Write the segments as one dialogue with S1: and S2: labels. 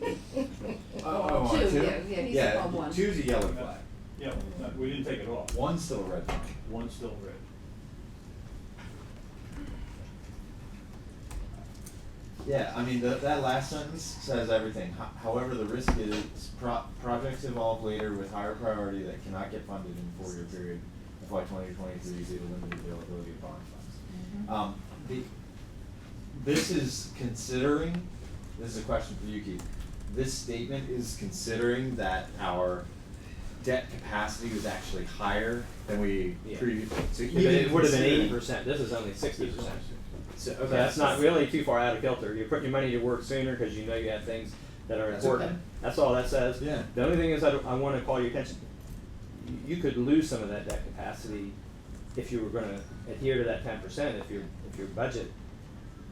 S1: Oh, oh, oh,
S2: Two,
S1: two?
S2: yeah, yeah, he's
S1: Yeah,
S2: on one.
S1: two's a yellow flag,
S3: Yeah, no, we didn't take it off,
S1: one's still a red flag.
S3: one's still red.
S1: Yeah, I mean, tha- that last sentence says everything. Ho- However, the risk is pro- projects evolve later with higher priority that cannot get funded in four-year period. FY twenty twenty-three due to limited availability of bond funds. Um, the, this is considering, this is a question for you, Keith. This statement is considering that our debt capacity was actually higher than we
S4: Yeah.
S1: previously, so
S4: But
S1: even
S4: it would have been eighty
S1: considering-
S4: percent, this is only sixty percent.
S1: So, okay,
S4: So that's not really too far out of kilter, you're putting your money to work sooner, cause you know you have things that are
S1: That's okay.
S4: important, that's all that says.
S1: Yeah.
S4: The only thing is, I, don't- I wanna call your attention, You- you could lose some of that debt capacity if you were gonna adhere to that ten percent, if your, if your budget,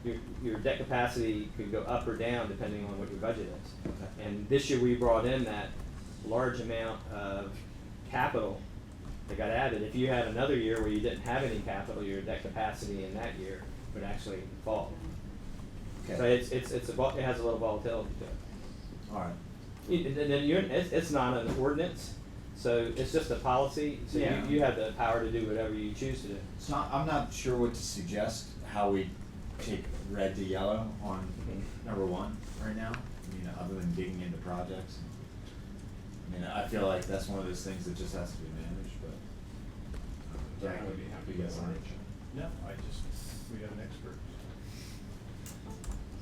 S4: your, your debt capacity could go up or down depending on what your budget is.
S1: Okay.
S4: And this year, we brought in that large amount of capital that got added. If you had another year where you didn't have any capital, your debt capacity in that year would actually fall.
S1: Okay.
S4: So it's, it's, it's a, vol- it has a little volatility to it.
S1: Alright.
S4: You- And then you're, it's, it's not an ordinance, so it's just a policy, so you,
S1: Yeah.
S4: you have the power to do whatever you choose to do.
S1: It's not, I'm not sure what to suggest, how we take red to yellow on number one right now, I mean, other than digging into projects. I mean, I feel like that's one of those things that just has to be managed, but. Jack would be happy to get on it.
S3: No, I just, we have an expert.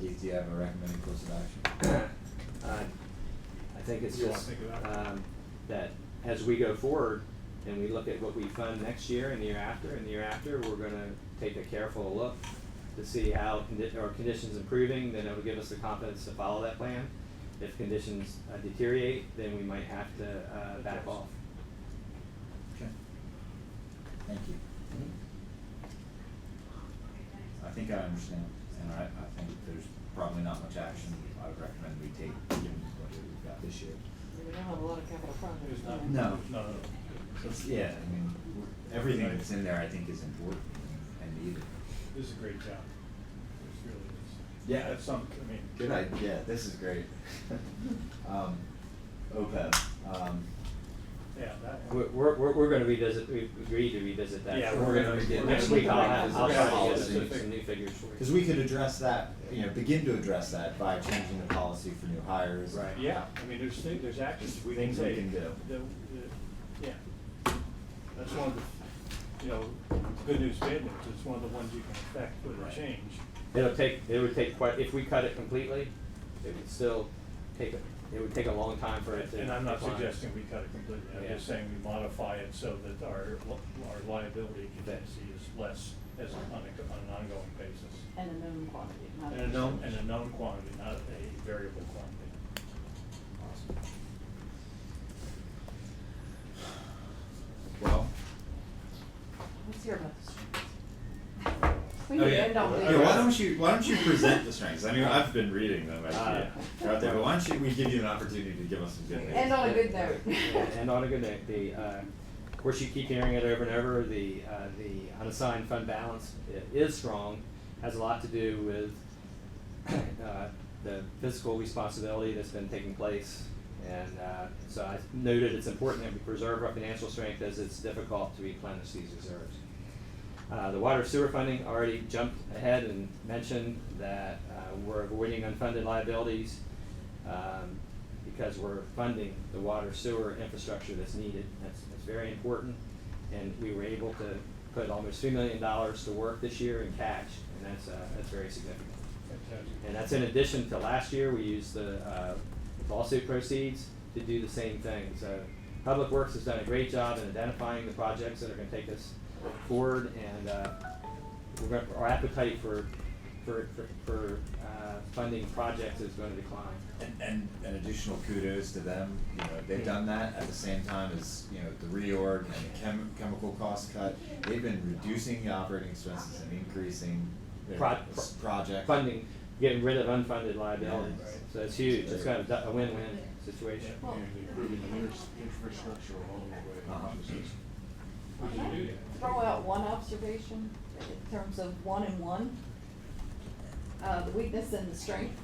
S1: Keith, do you have a recommended course of action?
S4: Uh, I think it's
S3: You wanna
S4: just,
S3: think about it?
S4: um, that as we go forward and we look at what we fund next year and the year after and the year after, we're gonna take a careful look to see how condi- our conditions improving, then it'll give us the confidence to follow that plan. If conditions uh, deteriorate, then we might have to, uh, back off.
S1: Okay. Thank you. I think I understand, and I, I think there's probably not much action I would recommend we take, given what we've got this year.
S2: We don't have a lot of capital projects.
S3: There's not,
S2: do we?
S1: No.
S3: no, no.
S1: It's, yeah, I mean, everything that's in there, I think, is important and needed.
S3: This is a great job. This really is.
S1: Yeah.
S3: That's some, I mean.
S1: Good idea, this is great. Um, OPEB, um,
S3: Yeah, that
S4: We're,
S3: one.
S4: we're, we're- we're gonna revisit, we've agreed to revisit that.
S3: Yeah,
S4: So
S1: we're gonna revisit
S4: Next
S1: that.
S4: week, I'll have,
S1: Revisit
S4: I'll
S1: that
S4: try to get
S1: policy.
S4: some, some new figures for you.
S1: cause we could address that, you know, begin to address that by changing the policy for new hires.
S4: Right.
S3: Yeah, I mean, there's things, there's actions we can
S1: Things we
S3: take.
S1: can do.
S3: The- the- Yeah. That's one of the, you know, good news, bad news, it's one of the ones you can affect with
S1: Right.
S3: a change.
S4: It'll take, it would take quite, if we cut it completely, it would still take, a- it would take a long time for it to.
S3: And I'm not
S4: decline.
S3: suggesting we cut it completely, I'm
S4: Yeah.
S3: just saying we modify it so that our, li- our liability contingency is less as on a, on an ongoing basis.
S2: And a known quantity. not
S3: And a known, and a known quantity, not a variable quantity.
S1: Well.
S2: Let's hear about the strengths.
S3: Oh,
S2: We need to end on
S1: Yeah,
S2: this.
S1: why don't you, why don't you present the strengths? I mean, I've been reading them, I,
S4: Uh,
S1: out there, but why don't you, we give you an opportunity to give us some good news?
S2: End on a good note.
S4: Yeah, And on a good note, the, uh, of course, you keep hearing it over and over, the, uh, the unassigned fund balance i- is strong, has a lot to do with, uh, the fiscal responsibility that's been taking place. And, uh, so I noted it's important that we preserve our financial strength as it's difficult to replenish these reserves. Uh, the water sewer funding already jumped ahead and mentioned that, uh, we're avoiding unfunded liabilities, um, because we're funding the water sewer infrastructure that's needed. That's, that's very important. And we were able to put almost three million dollars to work this year in cash, and that's, uh, that's very significant. And that's in addition to last year, we used the uh, lawsuit proceeds to do the same thing. So Public Works has done a great job in identifying the projects that are gonna take us forward and uh, we're gonna- our appetite for, for, for- for uh, funding projects is gonna decline.
S1: And, and, and additional kudos to them, you know, they've done that at the same time as, you know, the reorg and the chem- chemical cost cut. They've been reducing the operating expenses and increasing their
S4: Pro-
S1: s- project.
S4: funding, getting rid of unfunded liabilities.
S1: Yeah.
S4: So it's huge, it's kind of a win-win situation.
S2: Well,
S5: improving the infrastructure along the
S1: Uh-huh.
S5: way.
S2: can I Throw out one observation in terms of one and one. Uh, the weakness and the strength.